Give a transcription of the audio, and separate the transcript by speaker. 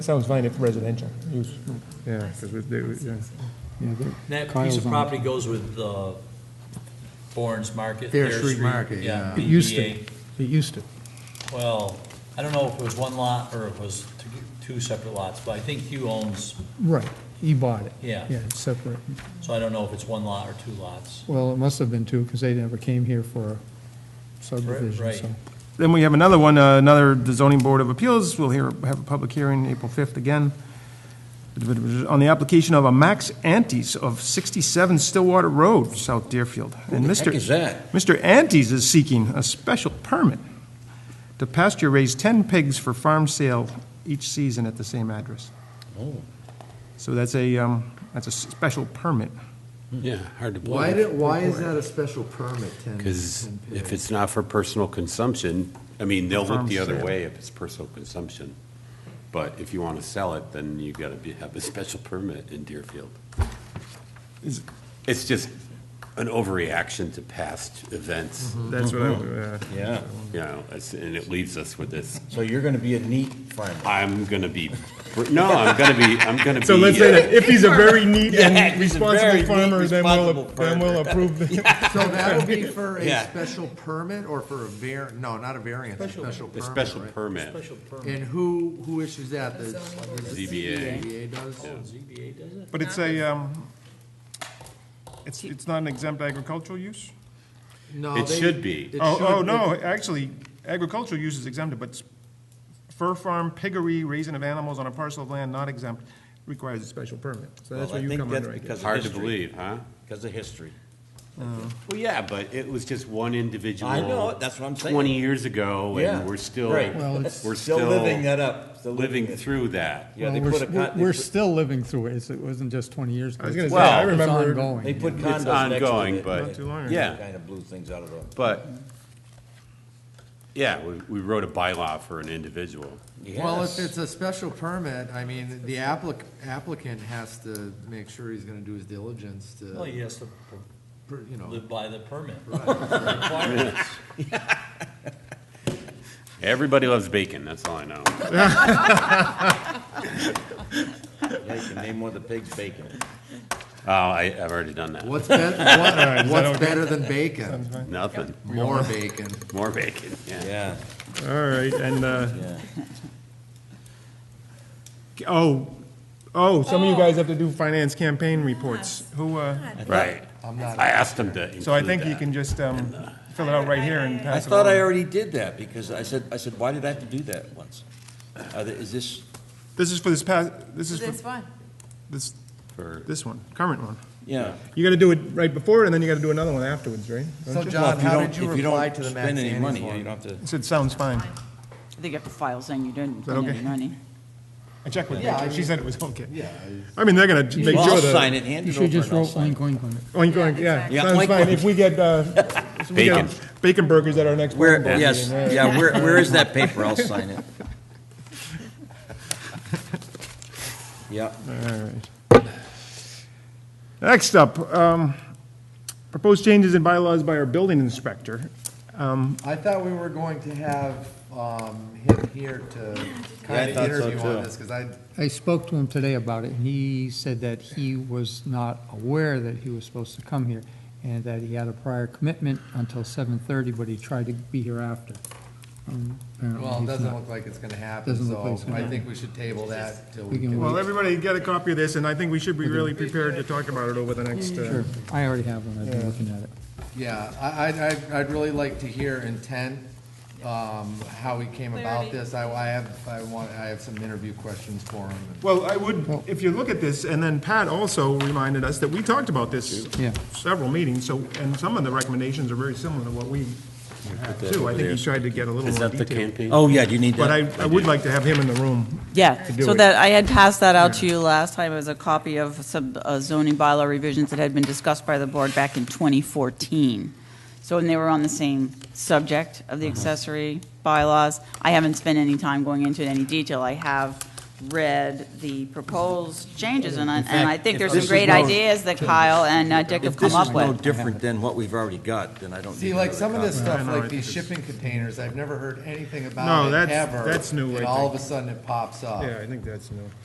Speaker 1: Sounds fine if residential use.
Speaker 2: Yeah, because we, they, yeah.
Speaker 3: Yeah, they're-
Speaker 4: That piece
Speaker 3: Kyle's
Speaker 4: of
Speaker 3: on.
Speaker 4: property goes with uh, Thorns Market.
Speaker 5: Thayer Street Market, yeah.
Speaker 3: It used to,
Speaker 4: BBA.
Speaker 3: it used to.
Speaker 4: Well, I don't know if it was one lot or if it was t- two separate lots, but I think Hugh owns,
Speaker 3: Right, he bought it.
Speaker 4: Yeah.
Speaker 3: Yeah, it's separate.
Speaker 4: so I don't know if it's one lot or two lots.
Speaker 3: Well, it must have been two, because they never came here for a subdivision,
Speaker 4: right.
Speaker 3: so.
Speaker 2: Then we have another one, uh, another, the zoning board of appeals, we'll hear, have a public hearing April fifth again. On the application of a Max Antes of sixty-seven Stillwater Road, South Deerfield. And
Speaker 5: the heck
Speaker 2: Mr.
Speaker 5: is that?
Speaker 2: Mr. Antes is seeking a special permit to pasture raise ten pigs for farm sale each season at the same address.
Speaker 5: Oh.
Speaker 2: So that's a, um, that's a special permit.
Speaker 6: Yeah, hard to
Speaker 5: Why
Speaker 6: believe.
Speaker 5: did, why is that a special permit, ten?
Speaker 6: Because
Speaker 5: 10 period?
Speaker 6: if it's not for personal consumption, I mean, they'll
Speaker 2: Farm
Speaker 6: look the other
Speaker 2: sale.
Speaker 6: way if it's personal consumption. But if you want to sell it, then you gotta be, have a special permit in Deerfield.
Speaker 2: Is-
Speaker 6: It's just an overreaction to past events,
Speaker 7: Mm-hmm.
Speaker 2: That's what I, uh,
Speaker 7: Yeah,
Speaker 6: you know, it's- and it leaves us with this,
Speaker 7: so you're gonna be a neat farmer.
Speaker 6: I'm gonna be, no, I'm gonna be, I'm gonna be.
Speaker 1: So let's say that if he's a very neat
Speaker 4: Yeah,
Speaker 1: and
Speaker 4: he's a
Speaker 1: responsible
Speaker 4: very neat,
Speaker 1: farmer, then we'll,
Speaker 4: responsible
Speaker 1: then we'll approve the,
Speaker 5: So that'll be for a
Speaker 6: Yeah.
Speaker 5: special permit or for a var, no, not a variance, a special
Speaker 6: A
Speaker 5: permit,
Speaker 6: special
Speaker 5: right?
Speaker 6: permit,
Speaker 4: Special permit.
Speaker 5: And who, who issues that? The
Speaker 6: ZBA.
Speaker 5: ZBA does?
Speaker 4: ZBA does it?
Speaker 2: But it's a, um, it's, it's not an exempt agricultural use?
Speaker 5: No,
Speaker 6: It
Speaker 5: they-
Speaker 6: should be.
Speaker 5: it
Speaker 2: Oh,
Speaker 5: should-
Speaker 2: oh, no, actually, agricultural use is exempted, but s- fur farm, piggery, raising of animals on a parcel of land not exempt requires a special permit. So that's
Speaker 7: Well, I
Speaker 2: where you
Speaker 7: think
Speaker 2: come
Speaker 7: that's
Speaker 2: under, I guess.
Speaker 7: because of
Speaker 6: hard to
Speaker 7: history.
Speaker 6: believe, huh?
Speaker 7: Because of history.
Speaker 6: Well, yeah, but it was just one individual.
Speaker 7: I know it, that's what I'm saying.
Speaker 6: Twenty years ago,
Speaker 7: Yeah,
Speaker 6: and we're still,
Speaker 7: right.
Speaker 3: Well,
Speaker 6: we're
Speaker 3: it's-
Speaker 6: still.
Speaker 7: Still living uh, that up, still living
Speaker 6: Living
Speaker 7: it.
Speaker 6: through that.
Speaker 7: Yeah, they
Speaker 3: Well, we're
Speaker 7: put
Speaker 3: s-
Speaker 7: a con-
Speaker 3: we're-
Speaker 7: they
Speaker 3: We're
Speaker 7: put-
Speaker 3: still living through it, It's- it wasn't just 20 years ago.
Speaker 1: I was gonna say,
Speaker 3: It's-
Speaker 1: I
Speaker 3: it's
Speaker 1: remember-
Speaker 3: ondos
Speaker 7: They put
Speaker 3: yeah.
Speaker 7: condos next to it.
Speaker 6: ongoing, but-
Speaker 2: Not too long ago.
Speaker 6: Yeah.
Speaker 7: Kind of blew things out of the,
Speaker 6: But, yeah, we, we wrote a bylaw for an individual.
Speaker 5: Well, if
Speaker 7: yes.
Speaker 5: it's a special permit, I mean, the applic- applicant has to make sure he's gonna do his diligence
Speaker 4: Well, he
Speaker 5: to,
Speaker 4: has to
Speaker 5: per- you know.
Speaker 4: live by the permit.
Speaker 6: Everybody loves bacon, that's all I know.
Speaker 7: yeah, you can name one of the pigs bacon.
Speaker 6: Oh, I, I've already done that.
Speaker 5: What's better,
Speaker 2: is that
Speaker 5: what's
Speaker 2: okay?
Speaker 5: better than bacon?
Speaker 6: Nothing,
Speaker 5: More bacon.
Speaker 6: more bacon, yeah.
Speaker 7: Yeah,
Speaker 2: All right, and, uh,
Speaker 7: yeah.
Speaker 2: oh, oh, some of you guys have to do finance campaign reports. Who, uh,
Speaker 6: Right.
Speaker 5: I'm not-
Speaker 6: I asked them to
Speaker 2: so I
Speaker 6: include
Speaker 2: think you
Speaker 6: that.
Speaker 2: can just, um, fill it out right here and
Speaker 7: I
Speaker 2: pass it
Speaker 7: uh, thought I
Speaker 2: along.
Speaker 7: already did that, because I said, I said, why did I have to do that once? Are there- Is this,
Speaker 2: This is for this past, this is
Speaker 8: This
Speaker 2: for
Speaker 8: one.
Speaker 2: this,
Speaker 6: For-
Speaker 2: this one, current one.
Speaker 7: yeah.
Speaker 2: You gotta do it right before, and then you gotta do another one afterwards, right?
Speaker 5: So
Speaker 7: Well,
Speaker 5: John,
Speaker 7: if you
Speaker 5: how
Speaker 7: don't-
Speaker 5: did you
Speaker 7: if don't
Speaker 5: reply to the Max
Speaker 7: Spend any
Speaker 5: Andes
Speaker 7: money,
Speaker 5: one?
Speaker 7: you don't have to.
Speaker 2: I said, sounds fine.
Speaker 8: I think you have to file saying you didn't
Speaker 2: that
Speaker 8: spend any
Speaker 2: okay?
Speaker 8: money.
Speaker 2: I checked with
Speaker 5: Yeah, I
Speaker 2: her, she
Speaker 5: mean-
Speaker 2: said it was okay.
Speaker 5: Yeah,
Speaker 2: I mean, they're gonna make
Speaker 7: Well,
Speaker 2: sure
Speaker 7: I'll
Speaker 2: that.
Speaker 7: sign it, hand
Speaker 3: You
Speaker 7: it over
Speaker 3: should
Speaker 7: and
Speaker 3: just
Speaker 7: I'll
Speaker 3: wrote
Speaker 7: sign
Speaker 3: oink,
Speaker 7: it.
Speaker 3: oink on
Speaker 2: Oink,
Speaker 3: it.
Speaker 2: oink,
Speaker 7: Yeah,
Speaker 2: yeah, sounds
Speaker 7: oink,
Speaker 2: fine,
Speaker 7: oink.
Speaker 2: if we get, uh, if we get
Speaker 6: Bacon.
Speaker 2: bacon burgers at our next
Speaker 7: Where,
Speaker 2: planning board
Speaker 7: yes,
Speaker 2: meeting, right?
Speaker 7: yeah, where, where is that paper? I'll sign it. Yeah.
Speaker 2: Next up, um, proposed changes in bylaws by our building inspector.
Speaker 5: I thought we were going to have um, him here to
Speaker 7: Yeah,
Speaker 5: kind
Speaker 7: I
Speaker 5: of
Speaker 7: thought so,
Speaker 5: interview on
Speaker 7: too.
Speaker 5: this, because I,
Speaker 3: I spoke to him today about it, and he said that he was not aware that he was supposed to come here, and that he had a prior commitment until 7:30, but he tried to be here after. Um, apparently
Speaker 5: well, it
Speaker 3: he's
Speaker 5: doesn't
Speaker 3: not.
Speaker 5: look like it's going to happen,
Speaker 3: Doesn't look like
Speaker 5: so
Speaker 3: it's gonna
Speaker 5: I
Speaker 3: happen.
Speaker 5: think we should table that till
Speaker 3: We
Speaker 5: we
Speaker 3: can
Speaker 5: can.
Speaker 3: wait.
Speaker 2: Well, everybody get a copy of this, and I think we should be really prepared to talk about it over the next, uh,
Speaker 3: Sure, I already have one, I've been looking at it.
Speaker 5: Yeah, I, I'd- I'd, I'd really like to hear intent, um, how he came about
Speaker 8: Clarity.
Speaker 5: this. I, I have, I want, I have some interview questions for him.
Speaker 2: well, I would, if you look at this, and then Pat also reminded us that we talked about this
Speaker 3: Yeah.
Speaker 2: several meetings, so, and some of the recommendations are very similar to what we have too. I think he tried to get a little
Speaker 6: Is
Speaker 2: more
Speaker 6: that the
Speaker 2: detail.
Speaker 6: campaign?
Speaker 7: Oh, yeah, do you need
Speaker 2: But I,
Speaker 7: that?
Speaker 2: I would like to have him in the room.
Speaker 8: Yeah,
Speaker 2: To do
Speaker 8: so
Speaker 2: it.
Speaker 8: that, I had passed that out to you last time as a copy of some uh, zoning bylaw revisions that had been discussed by the board back in 2014. So, and they were on the same
Speaker 7: Uh-huh.
Speaker 8: subject of the accessory bylaws. I haven't spent any time going into any detail. I have read the proposed changes, and I,
Speaker 7: In
Speaker 8: and I
Speaker 7: fact,
Speaker 8: think
Speaker 7: if
Speaker 8: there's some
Speaker 7: this is
Speaker 8: great
Speaker 7: no-
Speaker 8: ideas that Kyle and uh, Dick have
Speaker 7: If this
Speaker 8: come
Speaker 7: is
Speaker 8: up
Speaker 7: no
Speaker 8: with.
Speaker 7: different than what we've already got, then I don't need
Speaker 5: See, like
Speaker 7: another
Speaker 5: some of this
Speaker 7: copy.
Speaker 5: stuff,
Speaker 2: no, I
Speaker 5: like
Speaker 2: think
Speaker 5: these shipping containers, I've never heard anything
Speaker 2: No,
Speaker 5: about it
Speaker 2: that's-
Speaker 5: ever.
Speaker 2: that's new, I
Speaker 5: And all of
Speaker 2: think.
Speaker 5: a sudden it pops up.
Speaker 2: Yeah, I think that's new.